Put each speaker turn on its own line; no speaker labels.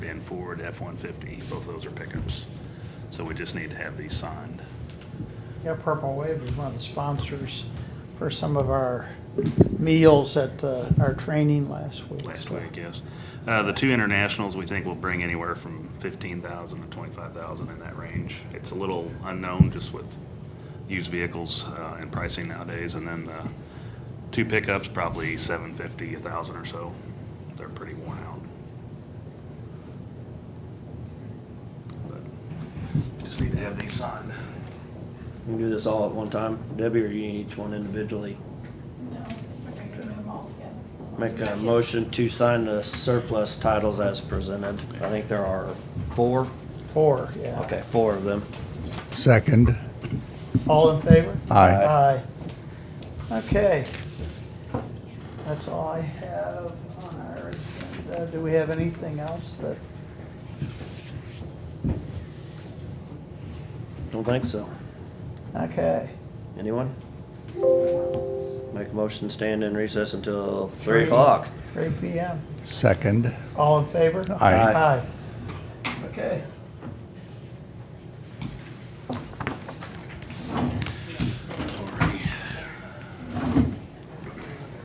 and Ford F-150, both those are pickups. So we just need to have these signed.
Yeah, Purple Wave is one of the sponsors for some of our meals at uh, our training last week.
last
so.
week, yes. Uh, the two internationals, we think will bring anywhere from fifteen thousand to twenty-five thousand in that range. It's a little unknown just with used vehicles, uh, and pricing nowadays, and then, uh, two pickups, probably seven fifty, a thousand or so. They're pretty worn out. But Just need to have these signed.
We do this all at one time, Debbie, or you need each one individually?
No, it's okay, you can do them all together.
Make a
Yes.
motion to sign the surplus titles as presented. I think there are four,
Four, yeah.
okay, four of them.
Second.
All in favor?
Aye.
Aye. Okay. That's all I have on our agenda. Do we have anything else that,
Don't think so.
okay.
Anyone? Make a motion, to stand in recess until three o'clock.
Three PM.
Second.
All in favor?
Aye.
Aye. Okay.